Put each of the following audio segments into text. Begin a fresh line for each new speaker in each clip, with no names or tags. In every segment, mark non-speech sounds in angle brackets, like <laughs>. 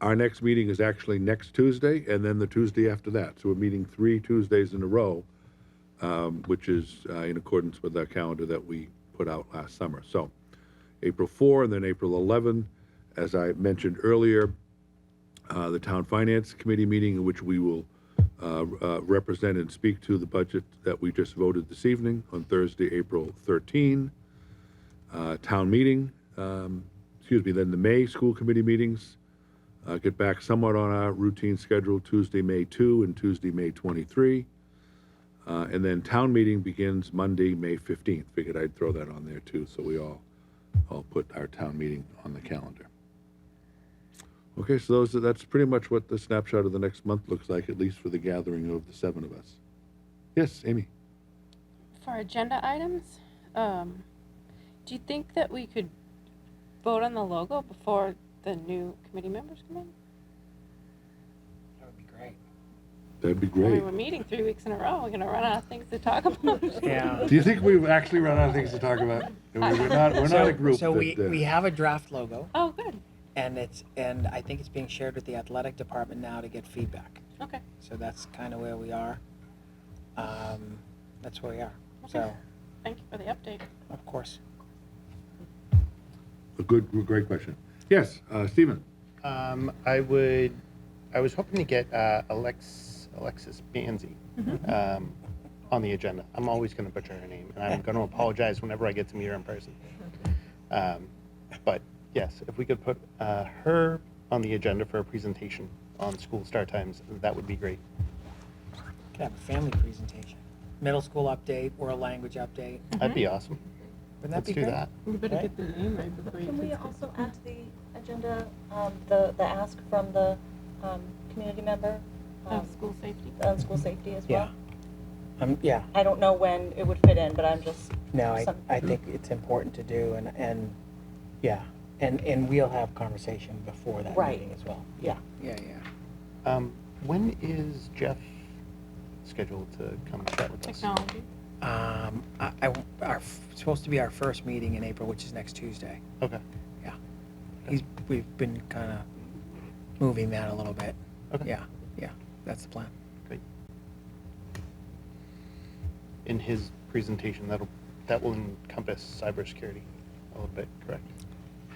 Our next meeting is actually next Tuesday, and then the Tuesday after that. So we're meeting three Tuesdays in a row, um, which is uh, in accordance with our calendar that we put out last summer. So April 4 and then April 11, as I mentioned earlier, uh, the Town Finance Committee meeting in which we will uh, uh, represent and speak to the budget that we just voted this evening on Thursday, April 13. Uh, Town meeting, um, excuse me, then the May school committee meetings. uh, Get back somewhat on our routine schedule Tuesday, May 2 and Tuesday, May 23. Uh, And then town meeting begins Monday, May 15th. Figured I'd throw that on there too, so we all, all put our town meeting on the calendar. Okay, so those, that's pretty much what the snapshot of the next month looks like, at least for the gathering of the seven of us. Yes, Amy?
For agenda items, um, do you think that we could vote on the logo before the new committee members come in?
That would be great.
That'd be
I
great.
mean, we're meeting three weeks in a row, we're gonna run out of things to talk about.
Yeah.
Do you think we've actually run out of things to talk about? We're not, we're not a group
So we,
that, uh,
we have a draft logo
<laughs> Oh, good,
and it's, and I think it's being shared with the athletic department now to get feedback.
okay,
So that's kind of where we are. Um, that's where we are. So,
Okay. thank you for the update.
of course.
a good, great question. Yes, uh, Stephen?
Um, I would. I was hoping to get uh, Alex Alexis Banzi
Mm-hmm.
um, on the agenda. I'm always going to butcher her name,
<laughs>
and I'm going to apologize whenever I get to meet her in person. Um, but yes, if we could put uh, her on the agenda for a presentation on school start times, that would be great.
Could have a family presentation, middle school update, world language update.
That'd be awesome.
Wouldn't that
Let's
Mm-hmm. be
do
great?
that.
You better
Right.
get the name right before
Can we
you.
also add to the agenda, um, the, the ask from the, um, community member? um,
Of school safety.
On school safety as
Yeah.
well?
Um, yeah.
I don't know when it would fit in, but I'm just,
No, I,
Some-
I think it's important to do and, and, yeah. And, and we'll have conversation before that
Right.
meeting as well.
yeah.
Yeah, yeah.
Um, when is Jeff scheduled to come chat with us?
Technology.
Um, I, I, our, f- supposed to be our first meeting in April, which is next Tuesday.
Okay.
Yeah. He's, we've been kind of moving that a little bit.
Okay.
Yeah, yeah, that's the plan.
Great. In his presentation, that'll, that will encompass cybersecurity a little bit, correct?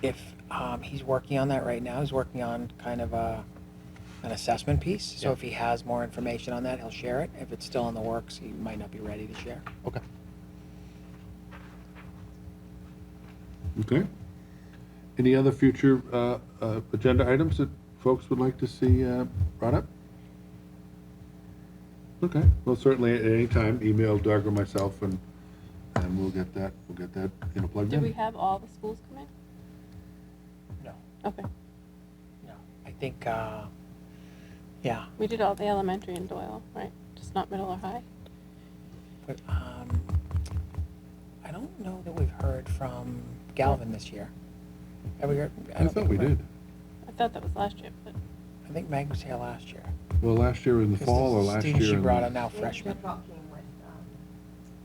If, um, he's working on that right now, he's working on kind of a, an assessment piece. So
Yeah.
if he has more information on that, he'll share it. If it's still in the works, he might not be ready to share.
Okay.
Okay. Any other future uh, uh, agenda items that folks would like to see uh, brought up? Okay, well, certainly at any time, email Doug or myself, and, and we'll get that, we'll get that, you know, plugged
Did we
in.
have all the schools come in?
No.
Okay,
No. I think, uh, yeah,
we did all the elementary in Doyle, right, just not middle or high?
But um, I don't know that we've heard from Galvin this year. Have we heard?
I
don't
thought
think
we did.
I thought that was last year, but,
I think Meg was here last year.
Well, last year in the
'Cause
fall or
the
last year.
Students she
in the-
brought are now
Freshman.
freshmen.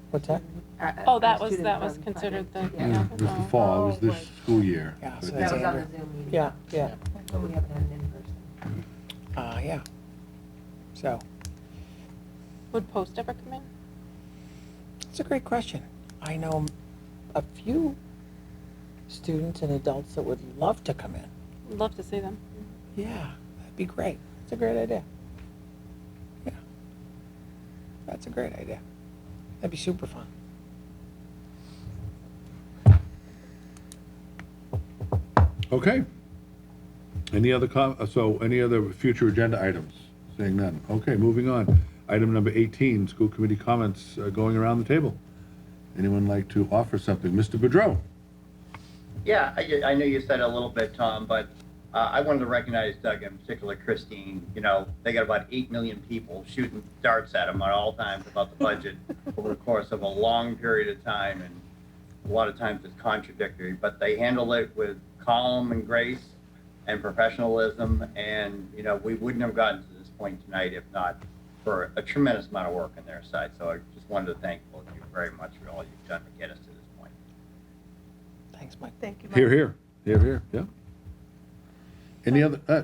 What's that?
Uh,
oh, that was, that was considered the.
Yeah, It was the fall, it was
Oh,
this school year.
Yeah, so
but-
that's
That was on
Andrew.
the Zoom meeting.
Yeah, yeah.
But we haven't had an in-person.
Uh, yeah. So,
Would post ever come in?
it's a great question. I know a few students and adults that would love to come in.
Would Love to see them.
Yeah, that'd be great. That's a great idea. Yeah. That's a great idea. That'd be super fun.
Okay. Any other, com- uh, so any other future agenda items? Saying none. Okay, moving on. Item number 18, school committee comments uh, going around the table. Anyone like to offer something? Mr. Boudreau?
Yeah, I, I know you said a little bit, Tom, but uh, I wanted to recognize Doug and particularly Christine. You know, they got about 8 million people shooting darts at them at all times about the budget over the course of a long period of time. And a lot of times it's contradictory, but they handle it with calm and grace and professionalism. And, you know, we wouldn't have gotten to this point tonight if not for a tremendous amount of work on their side. So I just wanted to thank both of you very much for all you've done to get us to this point.
Thanks, Mike.
Here, here. Here, here, yeah. Any other, uh,